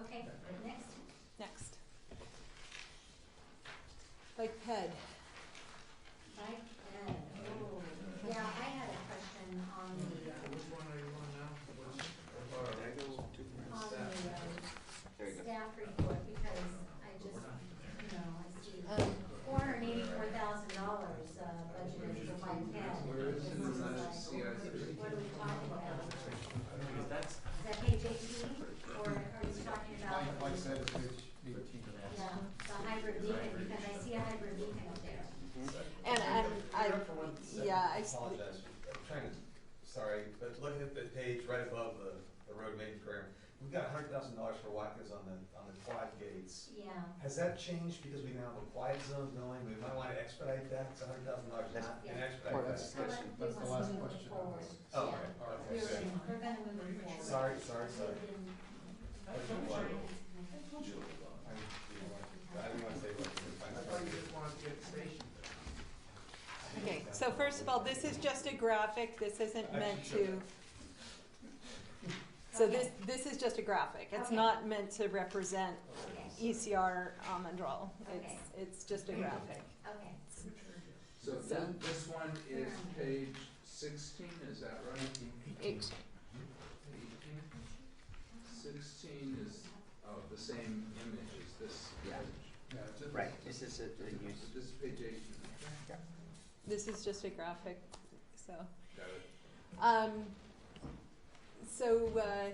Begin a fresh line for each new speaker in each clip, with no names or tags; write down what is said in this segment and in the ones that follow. Okay, next.
Next. Bike ped.
Bike ed, oh, yeah, I had a question on the, uh,
Which one are you on now?
on the, um,
There you go.
staff report, because I just, you know, I see
Um,
four hundred eighty-four thousand dollars, uh, budgeted for bike ed.
Where is
This
the
like,
CIC?
What are we talking about?
Because that's.
Is that page eighteen, or are you talking about? Yeah, the hybrid beacon, because I see a hybrid beacon up there.
And, and I,
Here for one second.
yeah, I s-
Apologize, I'm trying to, sorry, but look at the page right above the, the road maintenance program. We've got hundred thousand dollars for Watkins on the, on the quad gates.
Yeah,
Has that changed because we now have a quiet zone going, we might wanna expedite that, it's hundred thousand dollars, not
Yeah.
Or
an expedite
that's-
that.
so let, we
That's
must
the
move
last
it
question.
forward. Yeah.
Oh, okay,
We're
okay,
gonna,
good.
we're gonna move it forward.
Sorry, sorry, sorry. I told you. I I didn't wanna say what,
I thought you just wanted to get stationed.
okay, so first of all, this is just a graphic, this isn't meant to, so this, this is just a graphic. It's
Okay.
not meant to represent E
Okay,
ECR almond roll. um, It's,
Okay.
it's just a graphic.
okay.
So
So-
then this one is page sixteen, is that right?
It-
Eighteen? Sixteen is, oh, the same image as this page.
Yeah.
Yeah.
Right, this is a, a use.
This uh, is page eighteen.
This is just a graphic, so.
Got it.
Um, so, uh,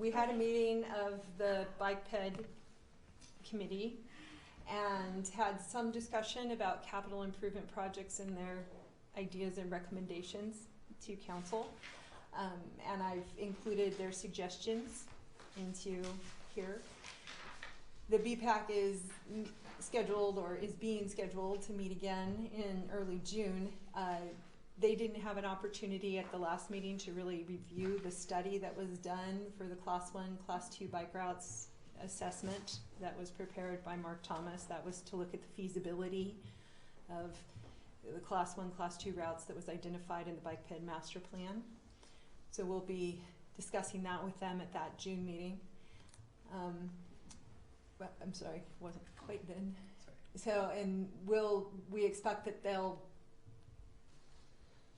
we had a meeting of the bike ped committee and had some discussion about capital improvement projects and their ideas and recommendations to council. Um, and I've included their suggestions into here. The BPAC is m- scheduled or is being scheduled to meet again in early June. Uh, they didn't have an opportunity at the last meeting to really review the study that was done for the class one, class two bike routes assessment that was prepared by Mark Thomas. That was to look at the feasibility of the class one, class two routes that was identified in the bike ped master plan. So we'll be discussing that with them at that June meeting. Um, but I'm sorry, wasn't quite then. So, and we'll, we expect that they'll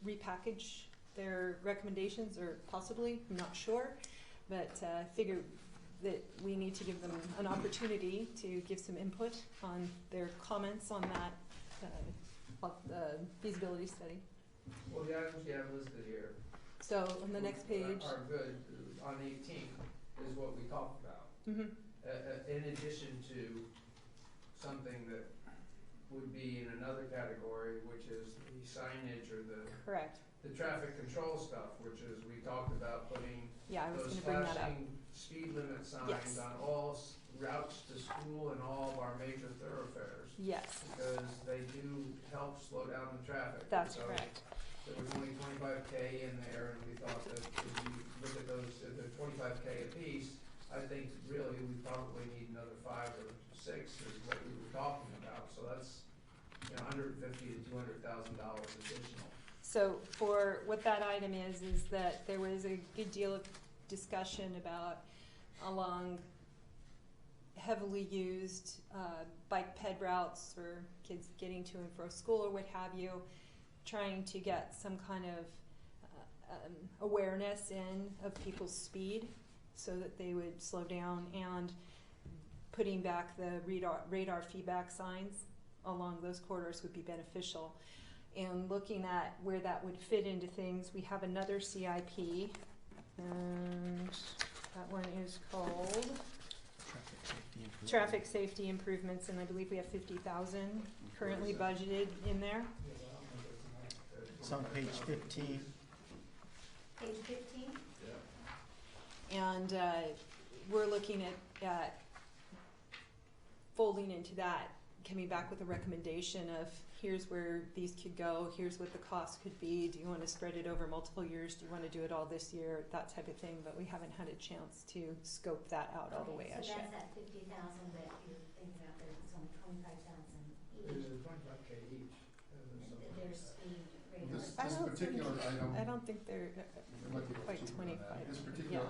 repackage their recommendations or possibly, I'm not sure, but uh, figure that we need to give them an opportunity to give some input on their comments on that, uh, of the feasibility study.
Well, the items you have listed here.
So on the next page,
Are good,
uh,
on eighteen is what we talked about,
mhm,
uh, uh, in addition to something that would be in another category, which is the signage or the,
correct,
the traffic control stuff, which is, we talked about putting
yeah, I was
those
gonna bring that up,
flashing speed limit
Yes.
signs on all s- routes to school and all of our major thoroughfares.
yes,
Because they do help slow down the traffic.
that's
So
correct,
There was only twenty-five K in there and we thought that if you look at those, if they're twenty-five K apiece, I think really we probably need another five or six is what we were talking about. So that's, you know, hundred and fifty to two hundred thousand dollars additional.
So for, what that item is, is that there was a good deal of discussion about along heavily used uh, bike ped routes for kids getting to and from school or what have you, trying to get some kind of uh, um, awareness in of people's speed so that they would slow down and putting back the radar, radar feedback signs along those corridors would be beneficial and looking at where that would fit into things, we have another CIP, and that one is called Traffic Safety Improvements, and I believe we have fifty thousand currently budgeted in there.
It's on page fifteen.
Page fifteen,
And uh, we're looking at, at folding into that, coming back with a recommendation of here's where these could go, here's what the cost could be, do you want to spread it over multiple years, do you want to do it all this year, that type of thing, but we haven't had a chance to scope that out all the way
so
as
that's
yet.
that fifty thousand that you're thinking about, there, it's only twenty-five thousand each,
There's twenty-five K each. and there's
their
something like that.
speed radar.
I don't think- I don't think they're uh, quite twenty-five.
This particular
Yeah.